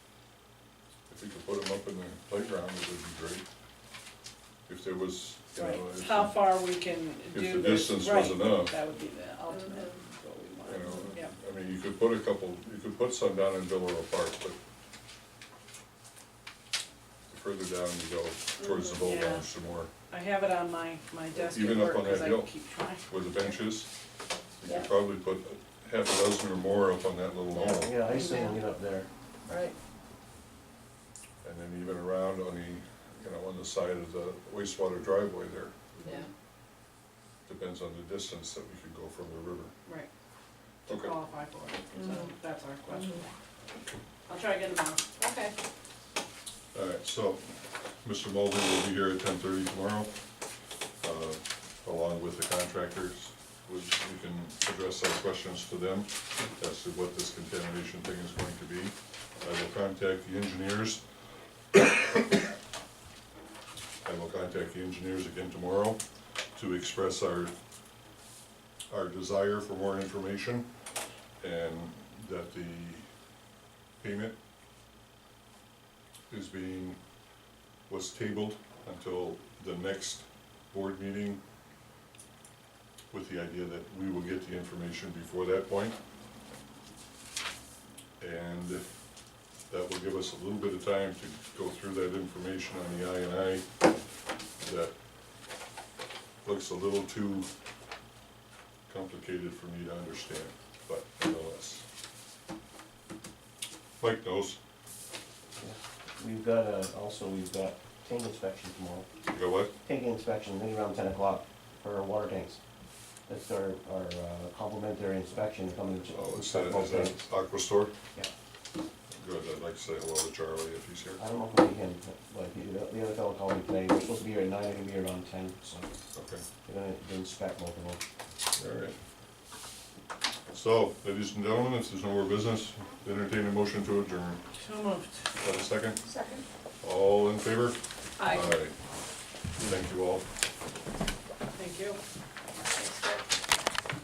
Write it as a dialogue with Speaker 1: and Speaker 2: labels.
Speaker 1: we could put them up in the playground, it would be great. If there was, you know,
Speaker 2: Right,
Speaker 1: if,
Speaker 2: how
Speaker 1: the-
Speaker 2: far we can
Speaker 1: if
Speaker 2: do
Speaker 1: the
Speaker 2: this,
Speaker 1: distance was
Speaker 2: right,
Speaker 1: enough,
Speaker 2: that would be the ultimate, what
Speaker 1: you
Speaker 2: we
Speaker 1: know.
Speaker 2: want, yeah.
Speaker 1: I mean, you could put a couple, you could put some down in Billrow Park, but the further down you go towards the boat
Speaker 2: Mm, Yeah.
Speaker 1: launch, the more,
Speaker 2: I have it on my, my desk at
Speaker 1: Even up
Speaker 2: work,
Speaker 1: on that
Speaker 2: cause I
Speaker 1: hill.
Speaker 2: keep trying.
Speaker 1: with the benches, you
Speaker 2: Yeah.
Speaker 1: could probably put half a dozen or more up on that little knoll.
Speaker 3: Yeah, I used to hang it up there.
Speaker 2: Right,
Speaker 1: And then even around on the, you know, on the side of the wastewater driveway there,
Speaker 2: yeah,
Speaker 1: depends on the distance that we could go from the river.
Speaker 2: right, to
Speaker 1: Okay,
Speaker 2: qualify for it, so
Speaker 4: Mhm.
Speaker 2: that's our question. I'll try again tomorrow.
Speaker 4: Okay,
Speaker 1: all right, so Mr. Mulvey will be here at ten thirty tomorrow, uh, along with the contractors. Which we can address our questions to them as to what this contamination thing is going to be. I will contact the engineers. I will contact the engineers again tomorrow to express our, our desire for more information and that the payment is being, was tabled until the next board meeting with the idea that we will get the information before that point. And that will give us a little bit of time to go through that information on the I and I that looks a little too complicated for me to understand, but nonetheless. Mike knows,
Speaker 3: We've got, uh, also, we've got tank inspection tomorrow.
Speaker 1: you know what?
Speaker 3: Tank inspection, maybe around ten o'clock for our water tanks. That's our, our uh, complimentary inspection coming to.
Speaker 1: Oh, is that,
Speaker 3: inspect
Speaker 1: is
Speaker 3: both
Speaker 1: that
Speaker 3: tanks.
Speaker 1: Aqua Store?
Speaker 3: Yeah.
Speaker 1: Good, I'd like to say hello to Charlie if he's here.
Speaker 3: I don't know if we can, but he- the- the other fellow called me today, we're supposed to be here at nine, we're gonna be here around ten, so
Speaker 1: Okay,
Speaker 3: we're gonna inspect both of them.
Speaker 1: all right. So, ladies and gentlemen, if there's no more business, entertain a motion to adjourn.
Speaker 2: So moved.
Speaker 1: Have a second?
Speaker 4: second.
Speaker 1: All in favor?
Speaker 2: Aye.
Speaker 1: Thank you all.
Speaker 2: Thank you.